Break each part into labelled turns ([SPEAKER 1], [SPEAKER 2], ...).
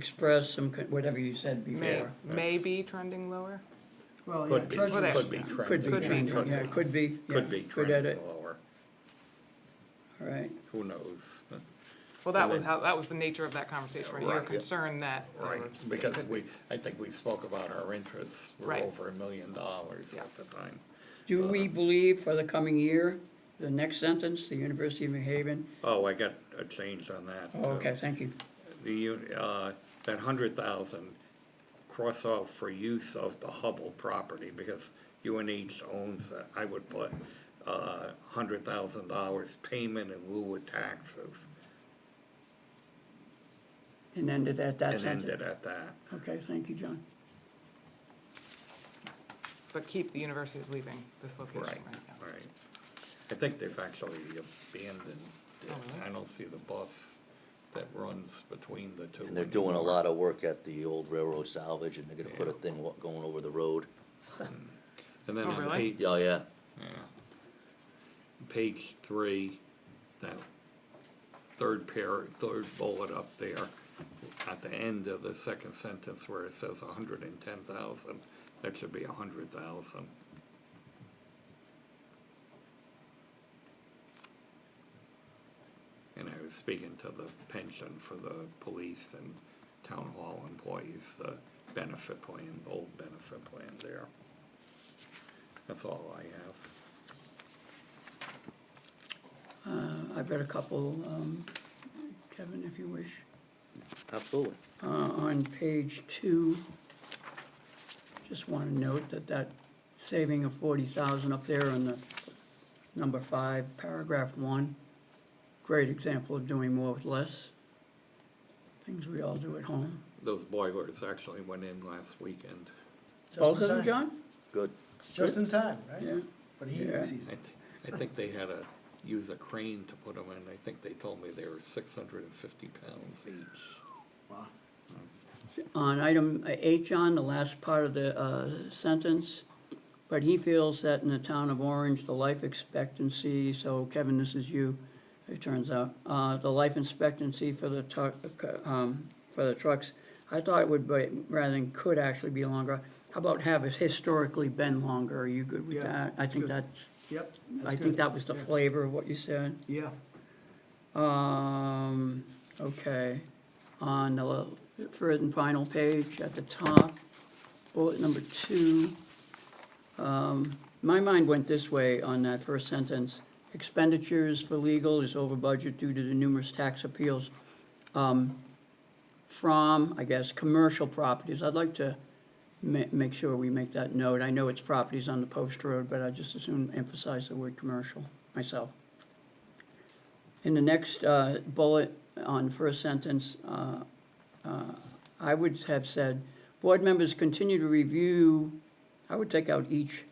[SPEAKER 1] express some, con- whatever you said
[SPEAKER 2] May,
[SPEAKER 1] before.
[SPEAKER 2] may be trending lower?
[SPEAKER 3] Well, yeah,
[SPEAKER 4] Could be,
[SPEAKER 3] treasurer's.
[SPEAKER 4] could be
[SPEAKER 3] yeah.
[SPEAKER 1] Could be
[SPEAKER 4] trending.
[SPEAKER 2] Could be.
[SPEAKER 1] changing, yeah, could be. yeah,
[SPEAKER 4] Could be
[SPEAKER 1] Could edit,
[SPEAKER 4] trending lower,
[SPEAKER 1] all right.
[SPEAKER 4] who knows?
[SPEAKER 2] Well, that
[SPEAKER 4] And
[SPEAKER 2] was
[SPEAKER 4] then-
[SPEAKER 2] how, that was the nature of that conversation, right? You were
[SPEAKER 4] Right, yeah.
[SPEAKER 2] concerned that. um, they
[SPEAKER 4] Right,
[SPEAKER 2] were-
[SPEAKER 4] because we, I think we spoke about our interests were
[SPEAKER 2] Right.
[SPEAKER 4] over a million dollars
[SPEAKER 2] Yeah.
[SPEAKER 4] at the time.
[SPEAKER 1] Do we believe for the coming year, the next sentence, the University of New Haven?
[SPEAKER 4] Oh, I got a change on that.
[SPEAKER 1] Oh, okay, thank you.
[SPEAKER 4] The, u- uh, that hundred thousand, cross off for use of the Hubble property, because UNH owns that, I would put, uh, hundred thousand dollars payment in lieu of taxes,
[SPEAKER 1] And ended at that
[SPEAKER 4] and
[SPEAKER 1] sentence.
[SPEAKER 4] ended at that.
[SPEAKER 1] Okay, thank you, John.
[SPEAKER 2] But keep the university is leaving this location right
[SPEAKER 4] Right,
[SPEAKER 2] now.
[SPEAKER 4] right. I think they've actually abandoned it.
[SPEAKER 2] Oh, really?
[SPEAKER 4] I don't see the bus that runs between the two.
[SPEAKER 5] And they're doing a lot of work at the old railroad salvage, and they're gonna put a thing wa- going over the road.
[SPEAKER 4] And then
[SPEAKER 2] Oh,
[SPEAKER 4] on
[SPEAKER 2] really?
[SPEAKER 4] page,
[SPEAKER 5] Oh, yeah.
[SPEAKER 4] page three, that third pair, third bullet up there, at the end of the second sentence where it says a hundred and ten thousand, that should be a hundred thousand. And I was speaking to the pension for the police and town hall employees, the benefit plan, the old benefit plan there. That's all I have.
[SPEAKER 1] Uh, I've got a couple, um, Kevin, if you wish.
[SPEAKER 5] Absolutely.
[SPEAKER 1] Uh, on page two, just want to note that that saving of forty thousand up there on the number five, paragraph one, great example of doing more with less. Things we all do at home.
[SPEAKER 4] Those boilers actually went in last weekend.
[SPEAKER 3] Just in
[SPEAKER 1] Both of them,
[SPEAKER 3] time.
[SPEAKER 1] John?
[SPEAKER 5] Good.
[SPEAKER 3] Just in time,
[SPEAKER 1] Yeah.
[SPEAKER 3] right? For the heating
[SPEAKER 1] Yeah.
[SPEAKER 4] I,
[SPEAKER 3] season.
[SPEAKER 4] th- I think they had to use a crane to put them in. I think they told me they were six hundred and fifty pounds each.
[SPEAKER 3] Wow.
[SPEAKER 1] On item eight, John, the last part of the uh, sentence, but he feels that in the town of Orange, the life expectancy, so Kevin, this is you, it turns out, uh, the life expectancy for the truck, um, for the trucks, I thought it would be, rather than could actually be longer. How about have it historically been longer? Are you good with
[SPEAKER 3] Yeah,
[SPEAKER 1] that? I
[SPEAKER 3] that's
[SPEAKER 1] think
[SPEAKER 3] good.
[SPEAKER 1] that's,
[SPEAKER 3] Yep.
[SPEAKER 1] I
[SPEAKER 3] that's
[SPEAKER 1] think
[SPEAKER 3] good.
[SPEAKER 1] that was the
[SPEAKER 3] Yeah.
[SPEAKER 1] flavor of what you said.
[SPEAKER 3] Yeah,
[SPEAKER 1] Um, okay, on the third and final page at the top, bullet number two. Um, my mind went this way on that first sentence. Expenditures for legal is over budget due to the numerous tax appeals. Um, from, I guess, commercial properties. I'd like to ma- make sure we make that note. I know it's properties on the post road, but I just as soon emphasize the word commercial myself. In the next uh, bullet on first sentence, uh, uh, I would have said, board members continue to review, I would take out each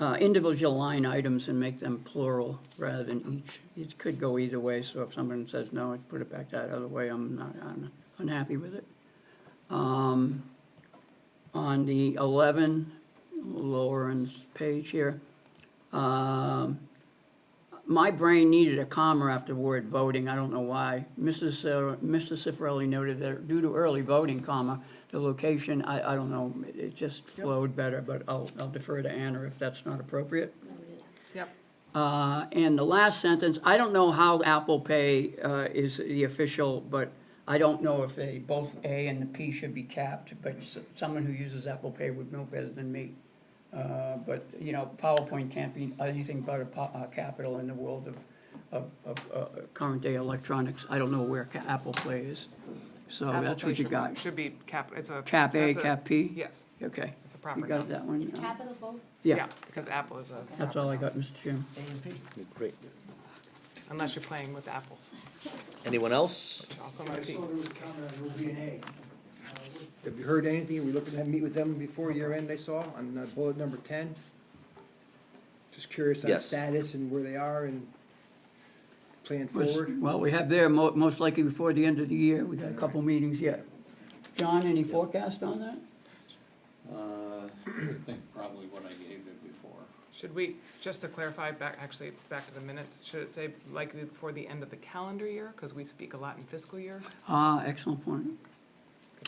[SPEAKER 1] uh, individual line items and make them plural rather than each. It could go either way, so if someone says no, I'd put it back that other way, I'm not I'm unhappy with it. Um, On the 11, lower end page here, um, my brain needed a comma after word voting, I don't know why. Mrs. uh, Mr. Cifarelli noted that due to early voting, comma, the location, I, I don't know, it- it just flowed better, but I'll, I'll defer to Anna if that's not appropriate.
[SPEAKER 2] Yep,
[SPEAKER 1] Uh, and the last sentence, I don't know how Apple Pay, uh, is the official, but I don't know if they, both A and the P should be capped, but s- someone who uses Apple Pay would know better than me. Uh, but, you know, PowerPoint can't be anything but a po- uh, capital in the world of, of, of, uh, current day electronics. I don't know where ca- Apple Play is, so that's what you
[SPEAKER 2] application
[SPEAKER 1] got.
[SPEAKER 2] Should be cap, it's a.
[SPEAKER 1] Cap A,
[SPEAKER 2] that's
[SPEAKER 1] cap P?
[SPEAKER 2] Yes,
[SPEAKER 1] Okay.
[SPEAKER 2] it's a
[SPEAKER 1] You
[SPEAKER 2] proper
[SPEAKER 1] got
[SPEAKER 2] noun.
[SPEAKER 1] that one?
[SPEAKER 6] Is capital both?
[SPEAKER 1] Yeah,
[SPEAKER 2] Because Apple is a.
[SPEAKER 1] that's
[SPEAKER 2] proper
[SPEAKER 1] all I
[SPEAKER 2] noun,
[SPEAKER 1] got, Mr. Chairman.
[SPEAKER 3] A and P.
[SPEAKER 5] Great.
[SPEAKER 2] Unless you're playing with apples,
[SPEAKER 5] Anyone else?
[SPEAKER 2] which also
[SPEAKER 3] I
[SPEAKER 2] might be.
[SPEAKER 3] saw there was a comment on OB and A. Have you heard anything? We looking to have- meet with them before year end, I saw, on uh, bullet number ten? Just curious on
[SPEAKER 5] Yes.
[SPEAKER 3] status and where they are and plan
[SPEAKER 1] Was-
[SPEAKER 3] forward.
[SPEAKER 1] Well, we have there, mo- most likely before the end of the year, we got a couple meetings yet. John, any forecast on that?
[SPEAKER 4] Uh, I think probably what I gave it before.
[SPEAKER 2] Should we, just to clarify, back, actually, back to the minutes, should it say likely before the end of the calendar year? Because we speak a lot in fiscal year.
[SPEAKER 1] Ah, excellent point.